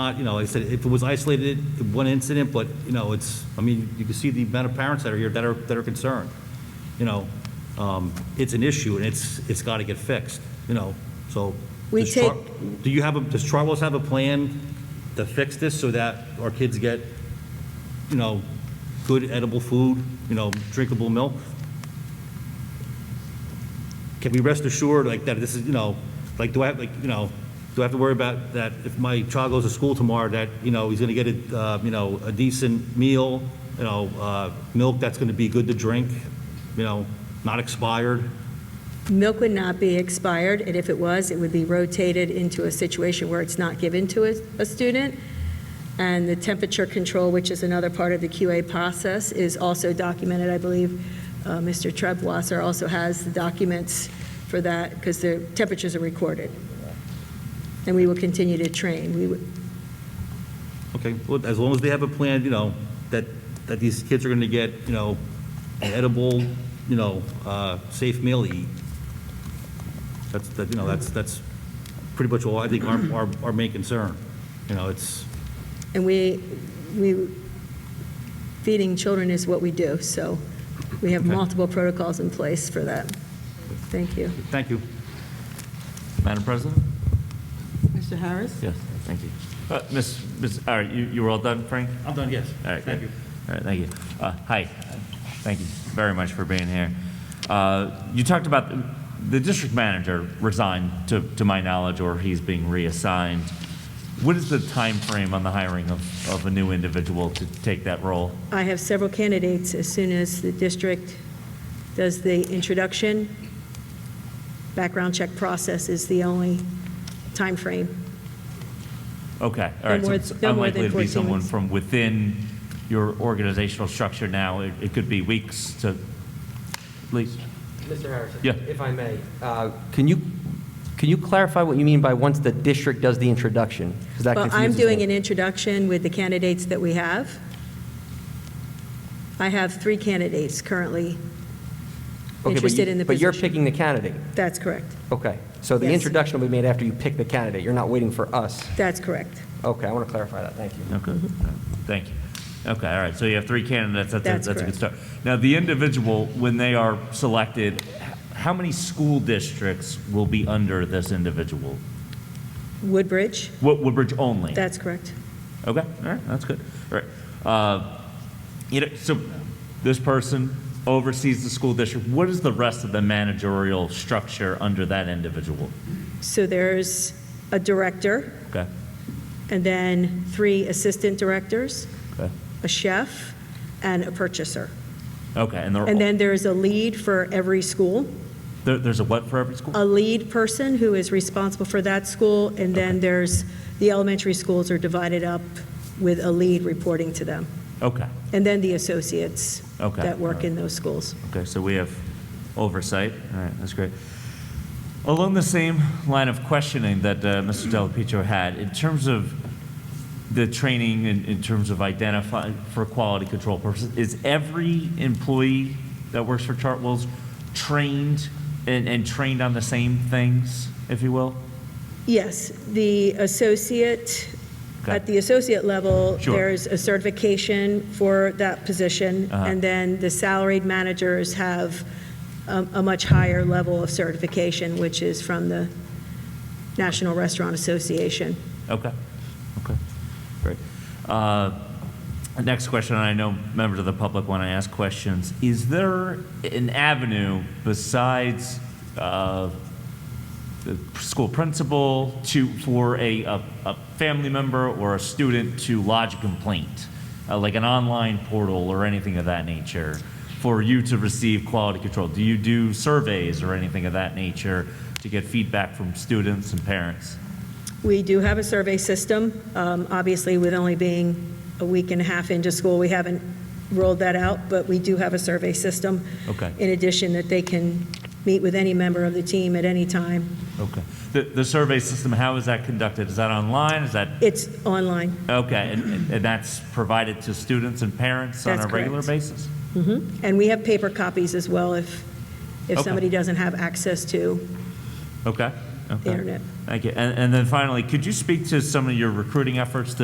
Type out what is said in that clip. Uh, You know, like I said, if it was isolated, one incident, but, you know, it's, I mean, you can see the amount of parents that are here that are, that are concerned. You know, um, it's an issue and it's, it's got to get fixed, you know, so. We does Char- take- Do you have, a does Charles have a plan to fix this so that our kids get, you know, good edible food, you know, drinkable milk? Can we rest assured, like, that this is, you know, like, do I have, like, you know, do I have to worry about that if my child goes to school tomorrow, that, you know, he's gonna get a, uh, you know, a decent meal, you know, uh, milk that's gonna be good to drink, you know, not expired? Milk would not be expired, and if it was, it would be rotated into a situation where it's not given to a, a student. And the temperature control, which is another part of the QA process, is also documented, I believe. Uh, Mr. Trebwasser also has the documents for that, because the temperatures are recorded. And we will continue to train. We, would- Okay, well, as long as they have a plan, you know, that, that these kids are gonna get, you know, an edible, you know, uh, safe meal to eat. That's, that, you know, that's, that's pretty much all I think our, our, our main concern. You know, it's, and we, we, feeding children is what we do, so we have Okay. multiple protocols in place for that. Thank you. thank you. Madam President? Mr. Harris? Yes. Thank you. Uh, Miss, Miss, all right, you, you were all done, Frank? I'm done, yes. All right, Thank good. you. All right, thank you. Uh, Hi, thank you very much for being here. Uh, You talked about, the- the district manager resigned, to, to my knowledge, or he's being reassigned. What is the time frame on the hiring of, of a new individual to take that role? I have several candidates. As soon as the district does the introduction, background check process is the only time frame. Okay, all right, No so more- it's no more unlikely than to be 14 someone weeks. from within your organizational structure now. It it could be weeks to, at least, Mr. Harrison? Yeah. If I may, uh, can you, can you clarify what you mean by once the district does the introduction? 'Cause that Well, I'm confuses doing me. an introduction with the candidates that we have. I have three candidates currently Okay, but interested you- in the But you're position. picking the candidate. That's correct. Okay. So the Yes. introduction will be made after you pick the candidate. You're not waiting for us. That's correct. Okay, I want to clarify that. Thank you. Okay, thank you. Okay, all right, so you have three candidates, that's, That's a- that's a good correct. start. Now, the individual, when they are selected, h- how many school districts will be under this individual? Woodbridge, Wo- Woodbridge only? that's correct. Okay, all right, that's good. All right. Uh, You know, so this person oversees the school district. What is the rest of the managerial structure under that individual? So there's a director, Okay, and then three assistant directors, okay, a chef, and a purchaser. okay, and they're, And all- then there is a lead for every school, there- there's a what for every school? a lead person who is responsible for that school, and then there's, the elementary schools are divided up with a lead reporting to them, Okay, and then the associates Okay. that work in those schools. Okay, so we have oversight. All right, that's great. Along the same line of questioning that uh, Mr. Delapietro had, in terms of the training, in, in terms of identifying for quality control purposes, is every employee that works for Chartwell's trained and, and trained on the same things, if you will? Yes, the associate, Okay. at the associate level, Sure. there's a certification for that position, Uh-huh. and then the salaried managers have a a much higher level of certification, which is from the National Restaurant Association. Okay, okay, great. Uh, Next question, and I know members of the public want to ask questions. Is there an avenue besides uh, the school principal to, for a, a a family member or a student to lodge a complaint? Uh, Like an online portal or anything of that nature for you to receive quality control? Do you do surveys or anything of that nature to get feedback from students and parents? We do have a survey system. Um, Obviously, with only being a week and a half into school, we haven't rolled that out, but we do have a survey system. Okay. In addition, that they can meet with any member of the team at any time. Okay. The, the survey system, how is that conducted? Is that online? Is that, It's online. okay, and, and that's provided to students and parents on a That's regular correct. basis? And we have paper copies as well if, if Okay. somebody doesn't have access to Okay, the Okay. internet. Thank you. And, and then finally, could you speak to some of your recruiting efforts to